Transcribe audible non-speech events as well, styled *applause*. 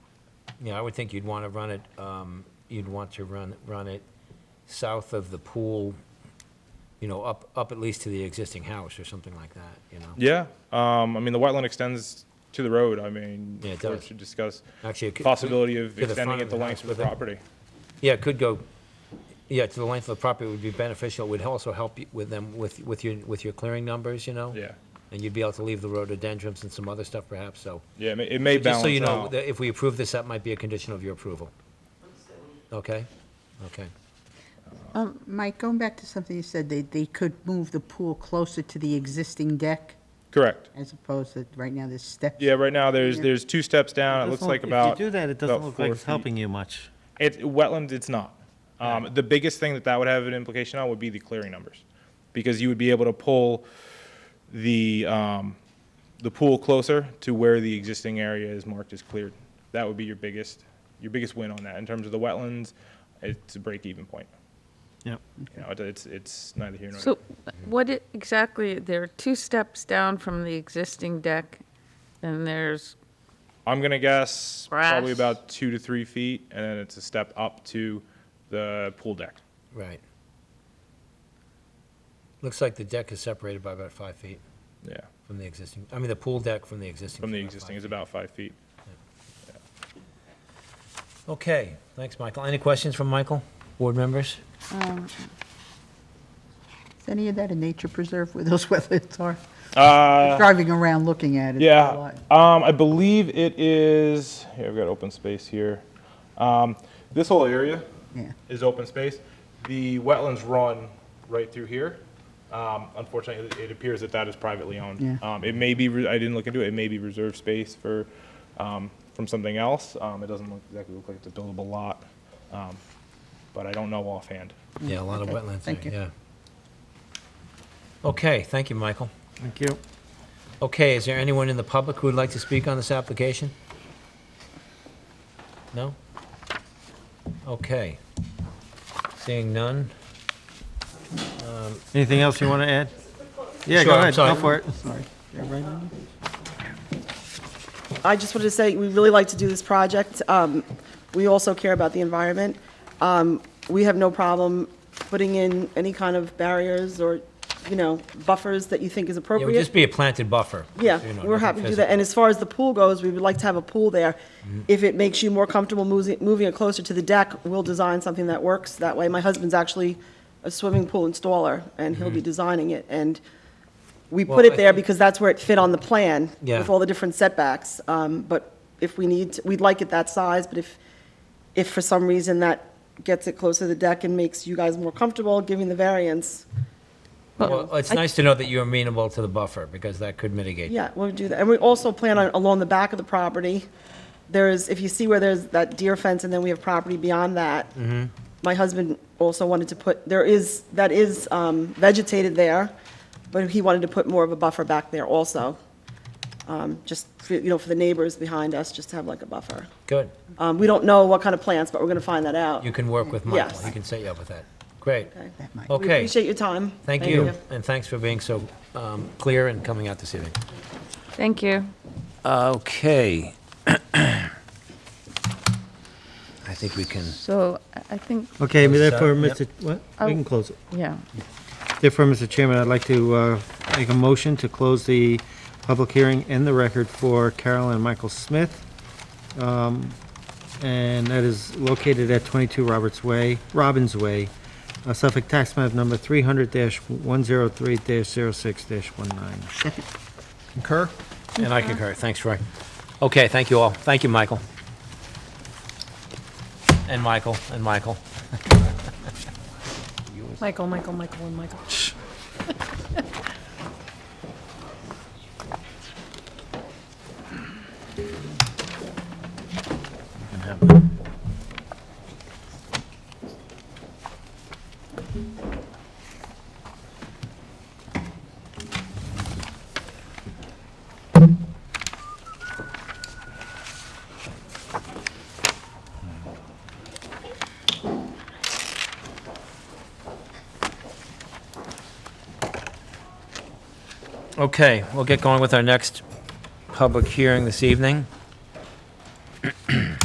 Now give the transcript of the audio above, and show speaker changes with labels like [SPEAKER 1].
[SPEAKER 1] Yeah, I would think you'd want to run it, um, you'd want to run, run it south of the pool, you know, up, up at least to the existing house or something like that, you know?
[SPEAKER 2] Yeah, um, I mean, the wetland extends to the road, I mean,
[SPEAKER 1] Yeah, it
[SPEAKER 2] we
[SPEAKER 1] does.
[SPEAKER 2] should discuss
[SPEAKER 1] Actually, it could-
[SPEAKER 2] possibility of
[SPEAKER 1] to the front
[SPEAKER 2] extending
[SPEAKER 1] of
[SPEAKER 2] it the
[SPEAKER 1] the
[SPEAKER 2] length
[SPEAKER 1] house
[SPEAKER 2] of
[SPEAKER 1] with
[SPEAKER 2] the
[SPEAKER 1] it.
[SPEAKER 2] property.
[SPEAKER 1] Yeah, it could go, yeah, to the length of the property would be beneficial, It would also help you with them, with, with your, with your clearing numbers, you know?
[SPEAKER 2] Yeah,
[SPEAKER 1] And you'd be able to leave the rhododendrons and some other stuff perhaps, so.
[SPEAKER 2] yeah, it may- it may
[SPEAKER 1] Just so you
[SPEAKER 2] balance
[SPEAKER 1] know,
[SPEAKER 2] out.
[SPEAKER 1] that if we approve this, that might be a condition of your approval. Okay? Okay.
[SPEAKER 3] Um, Mike, going back to something you said, they, they could move the pool closer to the existing deck
[SPEAKER 2] Correct.
[SPEAKER 3] as opposed to, right now, there's steps.
[SPEAKER 2] Yeah, right now, there's,
[SPEAKER 3] Yeah.
[SPEAKER 2] there's two steps down, it
[SPEAKER 4] Doesn't
[SPEAKER 2] looks like
[SPEAKER 4] look-
[SPEAKER 2] about.
[SPEAKER 4] If you do that, it
[SPEAKER 2] about
[SPEAKER 4] doesn't look
[SPEAKER 2] four
[SPEAKER 4] like it's
[SPEAKER 2] feet.
[SPEAKER 4] helping you much.
[SPEAKER 2] It's wetlands. It's not. Um, The biggest thing that that would have an implication on would be the clearing numbers, because you would be able to pull the um, the pool closer to where the existing area is marked as cleared. That would be your biggest your biggest win on that in terms of the wetlands. It's a break even point.
[SPEAKER 4] Yep.
[SPEAKER 2] You know, it- it's it's neither here nor
[SPEAKER 5] So
[SPEAKER 2] there.
[SPEAKER 5] what it- exactly, there are two steps down from the existing deck, and there's,
[SPEAKER 2] I'm gonna guess probably
[SPEAKER 5] Grass.
[SPEAKER 2] about two to three feet, and then it's a step up to the pool deck.
[SPEAKER 1] Right. Looks like the deck is separated by about five feet
[SPEAKER 2] Yeah,
[SPEAKER 1] from the existing, I mean, the pool deck from the existing. is
[SPEAKER 2] from the
[SPEAKER 1] about five
[SPEAKER 2] existing is
[SPEAKER 1] feet.
[SPEAKER 2] about five feet.
[SPEAKER 1] Okay, thanks, Michael. Any questions from Michael? Board members?
[SPEAKER 3] Is any of that a nature preserve where those *laughs* wetlands are?
[SPEAKER 2] Uh,
[SPEAKER 3] Driving around looking at it. a
[SPEAKER 2] Yeah,
[SPEAKER 3] lot.
[SPEAKER 2] um, I believe it is, here, I've got open space here. Um, this whole area
[SPEAKER 3] Yeah.
[SPEAKER 2] is open space. The wetlands run right through here. Um, unfortunately, it- it appears that that is privately owned.
[SPEAKER 3] Yeah.
[SPEAKER 2] Um, it may be, re- I didn't look into it, it may be reserved space for, um, from something else. Um, it doesn't look, exactly look like it's a buildable lot. Um, but I don't know offhand.
[SPEAKER 1] Yeah, a lot of
[SPEAKER 3] okay,
[SPEAKER 1] wetlands
[SPEAKER 3] thank
[SPEAKER 1] there,
[SPEAKER 3] you.
[SPEAKER 1] yeah. Okay, thank you, Michael.
[SPEAKER 4] Thank you.
[SPEAKER 1] Okay, is there anyone in the public who would like to speak on this application? No? Okay. Seeing none?
[SPEAKER 4] Anything else you want to add? Yeah,
[SPEAKER 1] Sure,
[SPEAKER 4] go
[SPEAKER 1] I'm
[SPEAKER 4] ahead,
[SPEAKER 1] sorry.
[SPEAKER 4] go for it.
[SPEAKER 3] Sorry. Yeah, right on.
[SPEAKER 6] I just wanted to say, we really like to do this project. Um, We also care about the environment. Um, We have no problem putting in any kind of barriers or, you know, buffers that you think is
[SPEAKER 1] It would just
[SPEAKER 6] appropriate.
[SPEAKER 1] be a planted buffer.
[SPEAKER 6] Yeah,
[SPEAKER 1] you know,
[SPEAKER 6] we're
[SPEAKER 1] nothing
[SPEAKER 6] happy to do
[SPEAKER 1] physical.
[SPEAKER 6] that. And as far as the pool goes, we would like to have a pool there.
[SPEAKER 1] Mm-hmm.
[SPEAKER 6] If it makes you more comfortable moving, moving it closer to the deck, we'll design something that works that way. My husband's actually a swimming pool installer, and he'll be designing it. And we
[SPEAKER 1] Mm-hmm. Well,
[SPEAKER 6] put
[SPEAKER 1] I
[SPEAKER 6] it there
[SPEAKER 1] think-
[SPEAKER 6] because that's where it fit on the plan
[SPEAKER 1] Yeah.
[SPEAKER 6] with all the different setbacks. Um, But if we need, to- we'd like it that size, but if, if for some reason that gets it closer to the deck and makes you guys more comfortable giving the variance,
[SPEAKER 1] Well, it's nice to know that you're amenable to the buffer, because that could mitigate.
[SPEAKER 6] yeah, we'll do that. And we also plan on along the back of the property. There is, if you see where there's that deer fence and then we have property beyond that.
[SPEAKER 1] Mm-hmm.
[SPEAKER 6] My husband also wanted to put, there is, that is um, vegetated there, but he wanted to put more of a buffer back there also. Um, Just, for- you know, for the neighbors behind us, just to have like a buffer.
[SPEAKER 1] Good.
[SPEAKER 6] Um, We don't know what kind of plants, but we're going to find that out.
[SPEAKER 1] You can work with Michael.
[SPEAKER 6] Yes.
[SPEAKER 1] He can set you up with that. Great.
[SPEAKER 6] Okay.
[SPEAKER 3] That might-
[SPEAKER 6] We
[SPEAKER 1] Okay,
[SPEAKER 6] appreciate your time.
[SPEAKER 1] thank you, and thanks for being so um, clear and coming out this evening.
[SPEAKER 5] thank you.
[SPEAKER 1] Okay. *clears throat* I think we can,
[SPEAKER 5] So I- I think,
[SPEAKER 4] Okay,
[SPEAKER 1] Close this out,
[SPEAKER 4] therefore,
[SPEAKER 1] yep.
[SPEAKER 4] Mr., what? We can close it.
[SPEAKER 5] yeah,
[SPEAKER 4] Therefore, Mr. Chairman, I'd like to uh, make a motion to close the public hearing and the record for Carol and Michael Smith. Um, And that is located at 22 Roberts Way, Robbins Way, uh, Suffolk Tax Map Number 300-103-06-19.
[SPEAKER 1] concur? And I concur, thanks, Roy. Okay, thank you all. Thank you, Michael. And Michael, and Michael.
[SPEAKER 7] Michael, Michael, Michael, and Michael.
[SPEAKER 1] Okay, we'll get going with our next public hearing this evening.